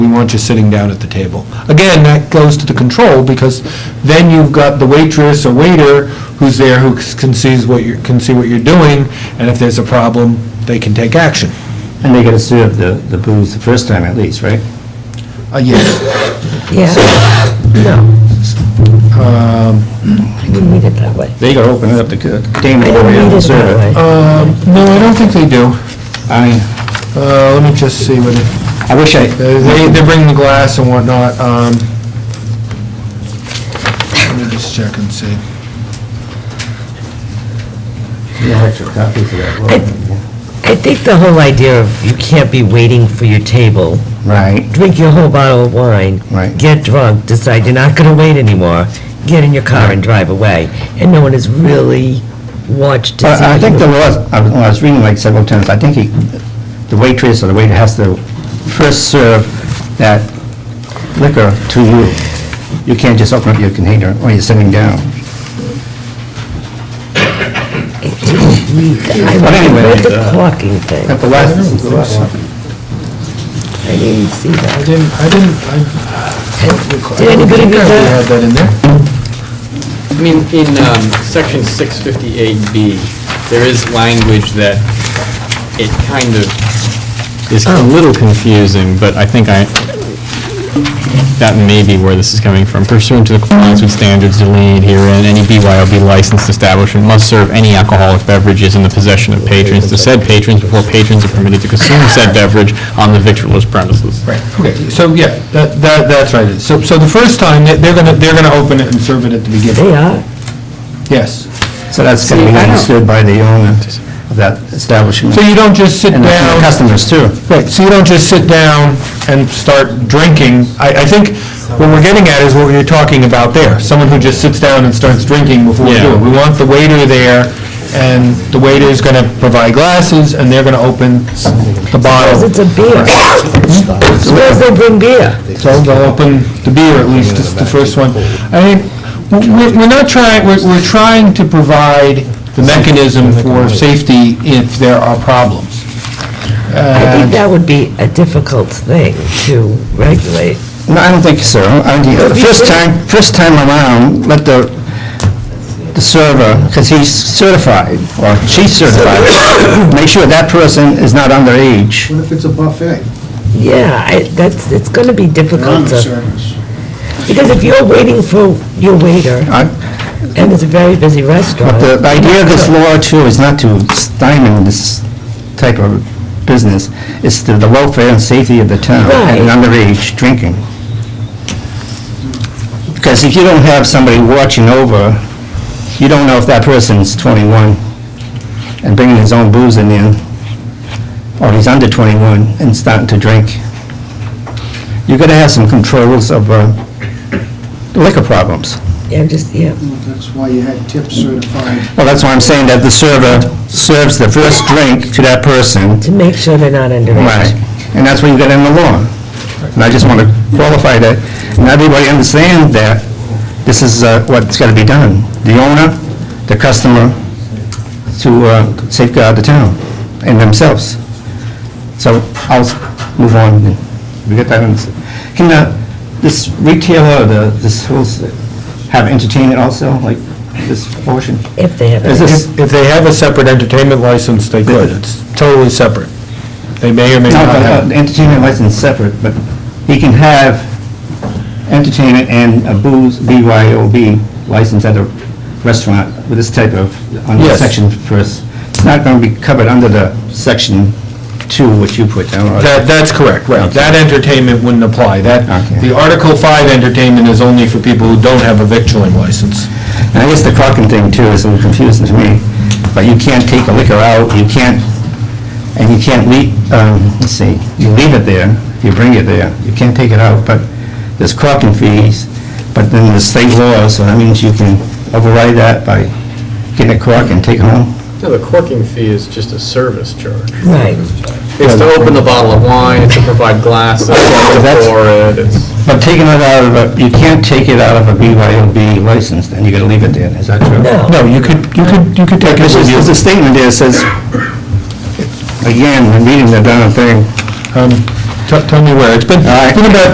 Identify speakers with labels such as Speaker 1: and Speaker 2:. Speaker 1: we want you sitting down at the table. Again, that goes to the control, because then you've got the waitress or waiter who's there, who can sees what you, can see what you're doing, and if there's a problem, they can take action.
Speaker 2: And they gotta serve the, the booze the first time at least, right?
Speaker 1: Uh, yes.
Speaker 3: Yeah, no,
Speaker 1: Um,
Speaker 3: I didn't read it that way.
Speaker 2: They gotta open it up, the container
Speaker 3: I don't
Speaker 2: over here
Speaker 3: read
Speaker 2: and
Speaker 3: it
Speaker 2: serve it. Uh,
Speaker 3: that way.
Speaker 1: um, no, I don't think they do.
Speaker 2: I mean,
Speaker 1: Uh, let me just see what, it- uh,
Speaker 2: I wish I,
Speaker 1: they, they bring the glass and whatnot, um, let me just check and see.
Speaker 2: no extra copies of that. well,
Speaker 3: I think the whole idea of you can't be waiting for your table,
Speaker 2: Right,
Speaker 3: drink your whole bottle of wine,
Speaker 2: Right.
Speaker 3: get drunk, decide you're not gonna wait anymore, get in your car and drive away, and no one has really watched to see.
Speaker 2: but I
Speaker 3: what
Speaker 2: think uh,
Speaker 3: you-
Speaker 2: there was, I was- when I was reading like several times, I think he, the waitress or the waiter has to first serve that liquor to you. You can't just open up your container when you're sitting down.
Speaker 3: I
Speaker 2: But anyway,
Speaker 3: read the
Speaker 2: uh,
Speaker 3: clocking thing,
Speaker 2: At the last,
Speaker 3: I didn't see
Speaker 1: I
Speaker 3: that.
Speaker 1: didn't, I didn't, I
Speaker 3: Did anybody read
Speaker 1: we
Speaker 3: that?
Speaker 1: had that in there.
Speaker 4: I mean, in um, section 658B, there is language that it kind of is a little confusing, but I think I, that may be where this is coming from. Pursuant to the compliance with standards delineated herein, any BYOB licensed establishment must serve any alcoholic beverages in the possession of patrons to said patrons before patrons are permitted to consume said beverage on the victualler's premises.
Speaker 1: Right, okay, so yeah, that, that, that's right. So, so the first time, they- they're gonna, they're gonna open it and serve it at the beginning.
Speaker 3: They are,
Speaker 1: Yes.
Speaker 2: so that's
Speaker 1: See,
Speaker 2: gonna be
Speaker 1: I don't-
Speaker 2: understood by the owner of that establishment.
Speaker 1: So you don't just sit
Speaker 2: And the
Speaker 1: down,
Speaker 2: customers too.
Speaker 1: right, so you don't just sit down and start drinking. I, I think what we're getting at is what you're talking about there, someone who just sits down and starts drinking before we do
Speaker 4: Yeah.
Speaker 1: it. We want the waiter there, and the waiter's gonna provide glasses, and they're gonna open the
Speaker 3: because
Speaker 1: bottle.
Speaker 3: it's a beer. Suppose they bring beer.
Speaker 1: So they'll open the beer, at least, it's the first one. I mean, we're, we're not trying, we're, we're trying to provide the mechanism for safety if there are problems.
Speaker 3: I think
Speaker 1: And
Speaker 3: that would be a difficult thing to regulate.
Speaker 2: No, I don't think so. I think the first time, first time around, let the, the server, because he's certified, or she's certified, make sure that person is not underage.
Speaker 5: What if it's a buffet?
Speaker 3: Yeah, I, that's, it's gonna be difficult to,
Speaker 5: Non-service.
Speaker 3: because if you're waiting for your waiter,
Speaker 2: I-
Speaker 3: and it's a very busy restaurant,
Speaker 2: The the idea of this law too is not to stymie this type of business, it's the the welfare and safety of the town and
Speaker 3: Right.
Speaker 2: underage drinking. Because if you don't have somebody watching over, you don't know if that person's 21 and bringing his own booze in there, or he's under 21 and starting to drink. You're going to have some controls of uh, liquor problems.
Speaker 3: yeah, just, yeah.
Speaker 5: Well, That's why you had tip certified.
Speaker 2: Well, that's why I'm saying that the server serves the first drink to that person.
Speaker 3: To make sure they're not underage.
Speaker 2: Right. And that's what you got in the law. And I just want to qualify that, and everybody understands that this is uh, what's got to be done. The owner, the customer, to uh, safeguard the town and themselves. So I'll s- move on. We get that in. Can uh, this retailer, the, this whole, s- have entertainment also, like this portion?
Speaker 3: If they have,
Speaker 2: Is
Speaker 3: it.
Speaker 2: this?
Speaker 1: if if they have a separate entertainment license, they could, it's totally separate. They may or may not
Speaker 2: No, but, uh,
Speaker 1: have.
Speaker 2: the entertainment license is separate, but he can have entertainment and a booze, BYOB license at a restaurant with this type of, under
Speaker 1: Yes.
Speaker 2: section first. It's not going to be covered under the section two, which you put down. or-
Speaker 1: That, that's correct, right,
Speaker 2: Okay.
Speaker 1: that entertainment wouldn't apply, that,
Speaker 2: Okay.
Speaker 1: the Article 5 entertainment is only for people who don't have a victualling license.
Speaker 2: And I guess the Crockin thing too is a little confusing to me, but you can't take the liquor out, you can't, and you can't leave, um, let's see, you leave it there, you bring it there, you can't take it out, but there's Crockin fees, but then there's state law, so that means you can override that by getting a Crock and take it home.
Speaker 4: No, the corking fee is just a service charge.
Speaker 3: right.
Speaker 4: It's to open the bottle of wine, it's to provide glasses,
Speaker 2: That's-
Speaker 4: to pour it, it's...
Speaker 2: But taking it out of a, you can't take it out of a BYOB license, then you gotta leave it there, is that true?
Speaker 3: No.
Speaker 1: No, you could, you could, you could take it
Speaker 2: There's
Speaker 1: with you.
Speaker 2: there's a statement there that says, again, I'm reading the darn thing,
Speaker 1: Um, Tell tell me where. It's been,
Speaker 2: All right.
Speaker 1: been about